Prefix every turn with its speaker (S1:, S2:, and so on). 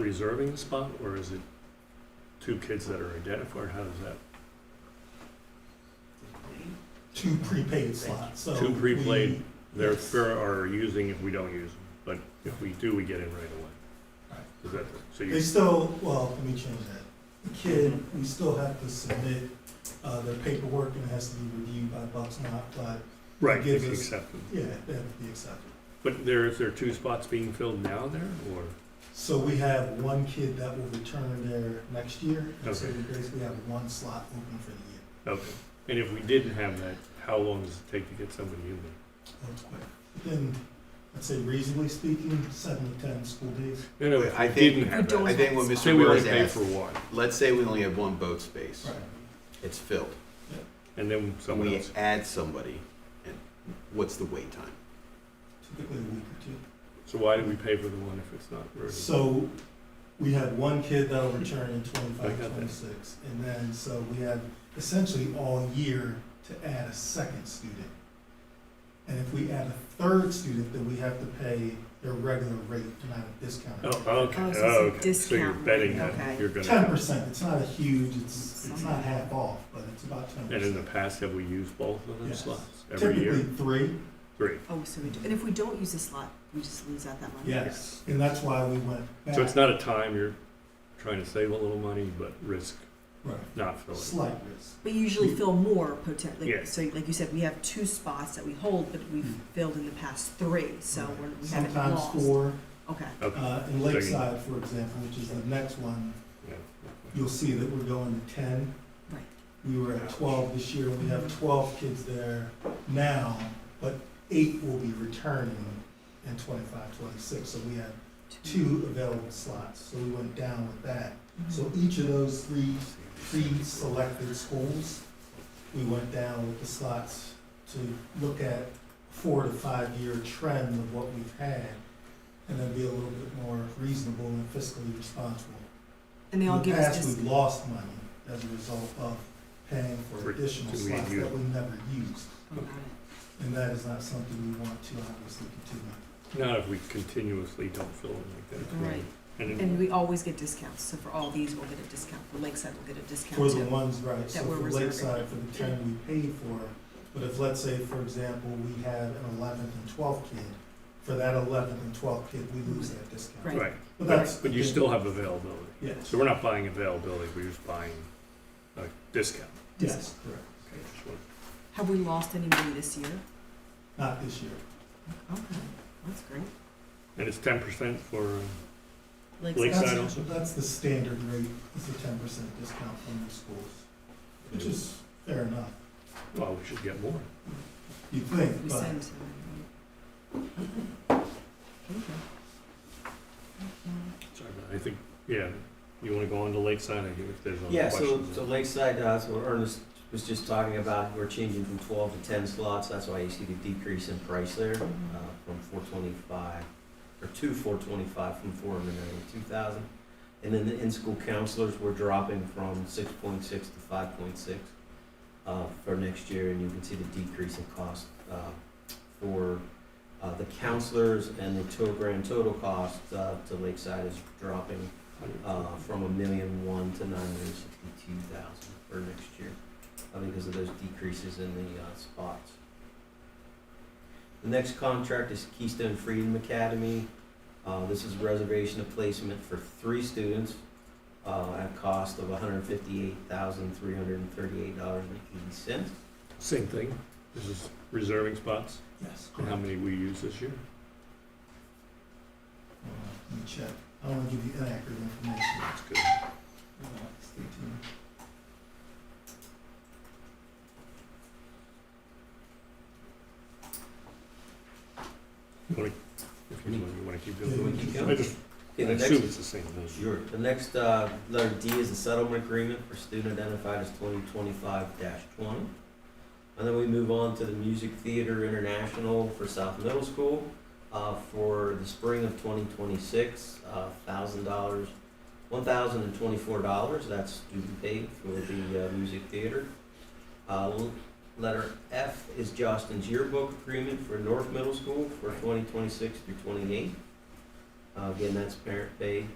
S1: reserving the spot, or is it two kids that are identified? How does that,
S2: two prepaid slots, so.
S1: Two prepaid.
S2: we-
S1: they're,
S2: Yes.
S1: fair- are using if we don't use them, but if we do, we get in right away?
S2: Right.
S1: Is that, so
S2: They
S1: you,
S2: still, well, let me change that. The kid, we still have to submit, uh, their paperwork and it has to be reviewed by Bucks and Hotfly.
S1: right,
S2: gives
S1: it's
S2: us-
S1: accepted.
S2: Yeah, they have to be accepted.
S1: But there, is there two spots being filled now there, or?
S2: So we have one kid that will return there next year, and so
S1: Okay.
S2: we basically have one slot open for the year.
S1: Okay, and if we didn't have that, how long does it take to get somebody in
S2: That's quick. Then, I'd say reasonably speaking, seven to ten school days.
S1: there? No, no, if
S3: I
S1: we
S3: think-
S1: didn't have
S3: I
S1: that,
S3: think what
S1: say
S3: Mr.
S1: we
S3: Moore
S1: only
S3: is
S1: pay for
S3: asking,
S1: one,
S3: let's say we only have one boat space.
S2: Right.
S3: It's filled.
S1: and then someone
S3: We
S1: else,
S3: add somebody, and what's the wait time?
S2: Typically a week or two.
S1: so why do we pay for the one if it's not ready?
S2: So, we have one kid that'll return in
S1: I got
S2: twenty-five,
S1: that.
S2: twenty-six, and then, so we have essentially all year to add a second student. And if we add a third student, then we have to pay their regular rate and not a discount.
S1: Oh, okay,
S4: Oh, so it's a
S1: oh, okay, so you're
S4: discount,
S1: betting
S4: okay.
S1: that you're gonna.
S2: Ten percent, it's not a huge, it's, it's not half off, but it's about ten
S1: And in the
S2: percent.
S1: past, have we used both of those
S2: Yes.
S1: slots every
S2: Typically
S1: year?
S2: three,
S1: Three.
S4: Oh, so we do, and if we don't use this lot, we just lose out that money?
S2: yes, and that's why we went back.
S1: So it's not a time you're trying to save a little money, but risk
S2: Right,
S1: not filling.
S2: slight risk,
S4: But you usually fill more potentially,
S1: Yeah.
S4: like, so like you said, we have two spots that we hold, but we've filled in the past three, so
S2: Hmm. Right.
S4: we're, we haven't
S2: sometimes
S4: lost.
S2: four,
S4: Okay,
S1: Okay.
S2: uh, in Lakeside, for example, which is the next one,
S1: Yeah.
S2: you'll see that we're going to ten.
S4: Right.
S2: We were at twelve this year, we have twelve kids there now, but eight will be returning in 25, 26. so we have two available slots, so we went down with that.
S4: Mm-hmm.
S2: So each of those three pre-selected schools, we went down with the slots to look at four to five-year trend of what we've had, and then be a little bit more reasonable and fiscally responsible.
S4: And they all give us
S2: In the past,
S4: just,
S2: we lost money as a result of paying
S1: For
S2: for additional
S1: too many
S2: slots
S1: units.
S2: that we never used,
S4: oh, got it.
S2: and that is not something we want to obviously continue.
S1: Not if we continuously don't fill them like that.
S4: Right.
S1: And
S4: and we always get discounts, so for all these, we'll get a discount, for Lakeside will get a
S2: For
S4: discount
S2: the
S4: too.
S2: ones, right, so
S4: that we're
S2: for
S4: reserving.
S2: Lakeside, for the ten we paid for, but if, let's say, for example, we have an eleventh and twelfth kid, for that eleventh and twelfth kid, we lose that discount.
S4: Right.
S1: Right,
S2: But that's.
S1: but you still have availability.
S2: Yes,
S1: So we're not buying availability, we're just buying a discount.
S2: yes, correct,
S1: Okay, just wanted
S4: Have we lost any money this year?
S2: not this year,
S4: Okay, that's great.
S1: And it's ten percent for, uh,
S4: Lakeside-
S1: Lakeside
S2: That's-
S1: also?
S2: That's the standard rate, is the ten percent discount from the schools, which is fair enough,
S1: well, we should get more.
S2: you think,
S4: We
S2: but
S4: send to them. Okay.
S2: Mm-hmm.
S1: Sorry, but I think, yeah, you wanna go on to Lakeside, I think if there's
S5: Yeah,
S1: other
S5: so,
S1: questions.
S5: so Lakeside, uh, that's what Ernest was just talking about, we're changing from twelve to ten slots, that's why you see the decrease in price there, uh,
S4: Um,
S5: from four twenty-five, or to four twenty-five from four hundred and two thousand. And then the in-school counselors, we're dropping from six point six to five point six, uh, for next year, and you can see the decrease in cost, uh, for, uh, the counselors and the total, grand total cost, uh, to Lakeside is dropping uh, from a million one to nine hundred sixty-two thousand for next year, uh, because of those decreases in the, uh, spots. The next contract is Keystone Freedom Academy. Uh, this is reservation of placement for three students, uh, at a cost of hundred and fifty-eight thousand, three hundred and thirty-eight dollars and eighty cents.
S1: Same thing, this is reserving spots,
S2: yes,
S1: and
S2: correct.
S1: how many we use this year?
S2: Uh, Let me check, I don't wanna give you inaccurate information.
S1: That's good.
S2: Uh, Stay tuned.
S1: You wanna- If you want, you wanna keep
S2: Yeah,
S1: doing
S2: we
S5: can
S1: it?
S5: go.
S1: I just, I
S5: Okay, the next
S1: assume it's the same as
S5: Sure. The next, uh, letter D is a settlement agreement for student identified as twenty twenty-five twenty. And then we move on to the Music Theater International for South Middle School, uh, for the spring of twenty twenty-six, uh, thousand dollars, one thousand and twenty-four dollars, that's student paid for the, uh, music theater. Uh, l- letter F is Justin's yearbook agreement for North Middle School for twenty twenty-six through twenty-eight. Uh, again, that's parent paid.